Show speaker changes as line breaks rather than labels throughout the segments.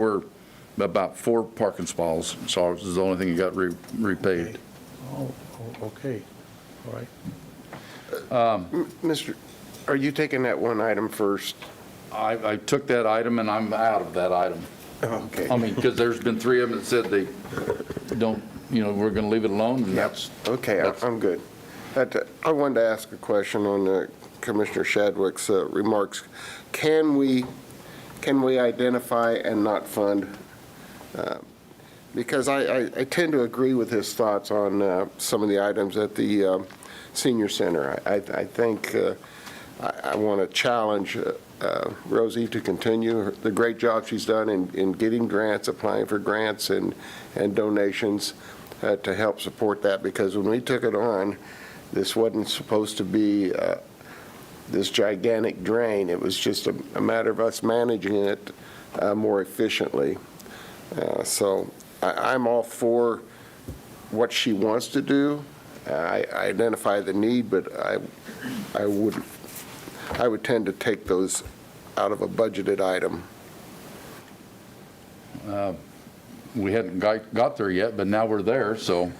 were about four parking stalls, so it was the only thing that got re- repaved.
Oh, oh, okay, all right.
Mr., are you taking that one item first?
I, I took that item and I'm out of that item.
Okay.
I mean, because there's been three of them that said they don't, you know, we're going to leave it alone, and that's,
Okay, I-
that's-
I'm good. That- I wanted to ask a question on uh, Commissioner Shadwick's uh, remarks. Can we, can we identify and not fund? Uh, Because I, I I tend to agree with his thoughts on uh, some of the items at the um, senior center. I, I- I think uh, I, I want to challenge uh, uh, Rosie to continue her- the great job she's done in, in getting grants, applying for grants and, and donations uh, to help support that, because when we took it on, this wasn't supposed to be uh, this gigantic drain. It was just a, a matter of us managing it uh, more efficiently. Uh, So I, I'm all for what she wants to do. Uh, I I identify the need, but I, I would I would tend to take those out of a budgeted item.
we hadn't got, got there yet, but now we're there, so.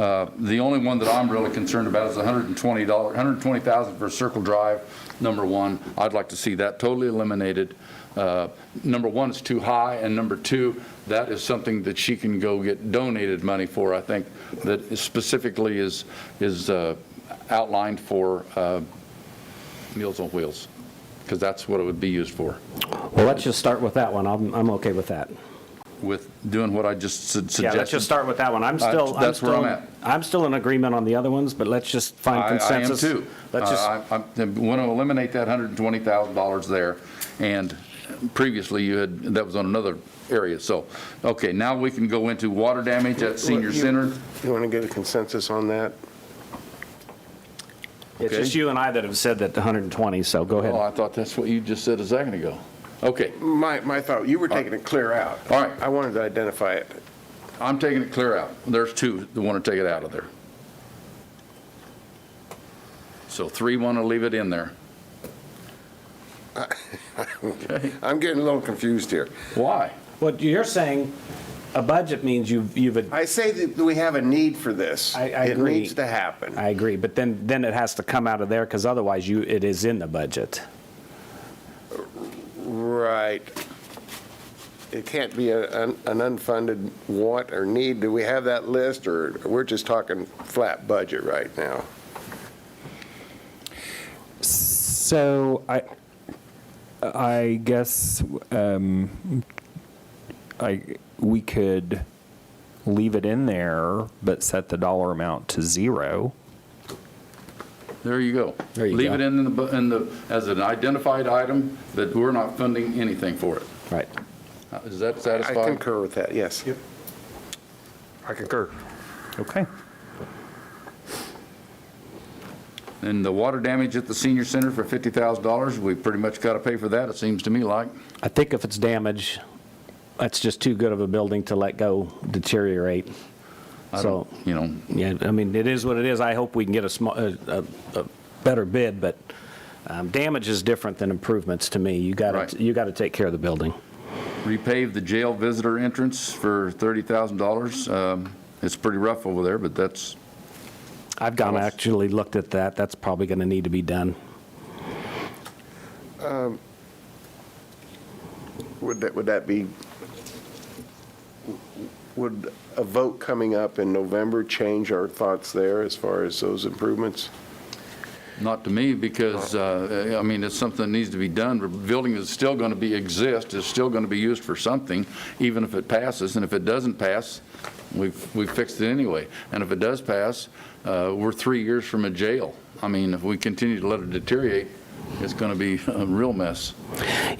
uh, The only one that I'm really concerned about is $120, $120,000 for Circle Drive, number one. I'd like to see that totally eliminated. Uh, Number one, it's too high, and number two, that is something that she can go get donated money for, I think, that specifically is, is uh, outlined for uh, Meals on Wheels, because that's what it would be used for.
Well, let's just start with that one. I'm, I'm okay with that.
With doing what I just su- suggested.
Yeah, let's just start with that one. I'm
Uh,
still, I'm
that's where I'm
still,
at.
I'm still in agreement on the other ones, but let's just find
I-
consensus.
I am too. Uh,
Let's just,
I want to eliminate that $120,000 there, and previously you had, that was on another area, so, okay, now we can go into water damage at senior
You-
center.
You want to get a consensus on that?
it's
okay.
just you and I that have said that 120, so
Oh,
go ahead.
I thought that's what you just said a second ago. Okay,
My, my thought, you were taking it clear out.
All right.
I wanted to identify it.
I'm taking it clear out. There's two that want to take it out of there. So three want to leave it in there.
I'm getting a little confused here.
Why?
What you're saying, a budget means you've, you've,
I say that we have a need for this.
I- I agree.
It needs to happen.
I agree, but then, then it has to come out of there because otherwise you, it is in the budget.
Right. It can't be a- an an unfunded want or need. Do we have that list, or we're just talking flat budget right now?
So I, I guess um, I we could leave it in there, but set the dollar amount to zero.
There you go.
There you
Leave
go.
it in the, bu- in the, as an identified item, that we're not funding anything for it.
Right.
Uh, Is that
I
satisfying?
concur with that, yes.
I concur. Okay.
And the water damage at the senior center for $50,000, we pretty much got to pay for that, it seems to me like.
I think if it's damage, that's just too good of a building to let go deteriorate.
I
So,
don't, you know,
yeah, I mean, it is what it is. I hope we can get a small, a, a, a better bid, but um, damage is different than improvements to me. You
Right.
gotta, you gotta take care of the building.
repave the jail visitor entrance for $30,000. Um, It's pretty rough over there, but that's,
I've gone, actually looked at that. That's probably gonna need to be done.
Would that, would that be, would a vote coming up in November change our thoughts there as far as those improvements?
not to me, because, uh, I mean, it's something that needs to be done. The Building is still going to be, exist, is still going to be used for something, even if it passes. And if it doesn't pass, we've, we fixed it anyway. And if it does pass, uh, we're three years from a jail. I mean, if we continue to let it deteriorate, it's going to be a real mess.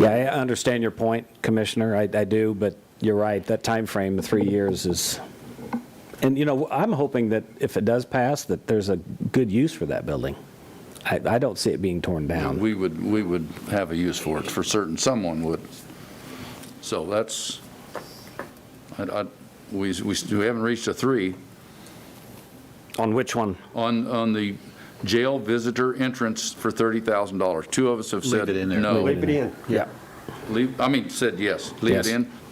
Yeah, I understand your point, Commissioner. I, I do, but you're right. That time frame of three years is, and you know, I'm hoping that if it does pass, that there's a good use for that building. I, I don't see it being torn down.
We would, we would have a use for it, for certain, someone would. So that's, I, I, we, we we haven't reached a three.
On which one?
On, on the jail visitor entrance for $30,000. Two of us have said no.
Leave it in. Yeah.
Leave- I mean, said yes. Leave it
Yes.
in.